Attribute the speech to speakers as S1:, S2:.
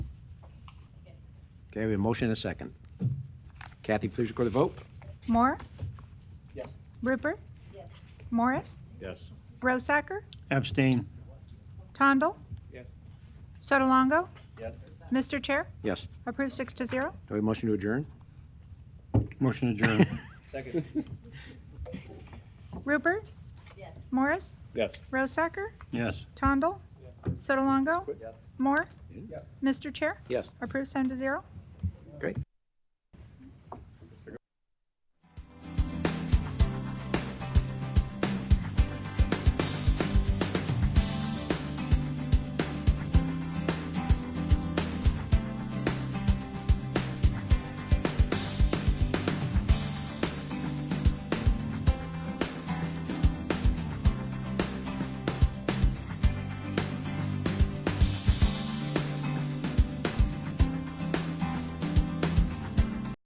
S1: Okay, we have a motion and a second. Kathy, please record the vote.
S2: Moore?
S3: Yes.
S2: Rupert? Morris?
S3: Yes.
S2: Rosacker?
S4: Abstain.
S2: Tondal?
S3: Yes.
S2: Sotolongo?
S3: Yes.
S2: Mr. Chair,
S1: Yes.
S2: approved six to zero.
S1: Do we have a motion to adjourn?
S4: Motion adjourned.
S3: Second.
S2: Rupert? Morris?
S3: Yes.
S2: Rosacker?
S4: Yes.
S2: Tondal? Sotolongo?
S3: Yes.
S2: Moore?
S3: Yeah.
S2: Mr. Chair,
S1: Yes.
S2: approved seven to zero.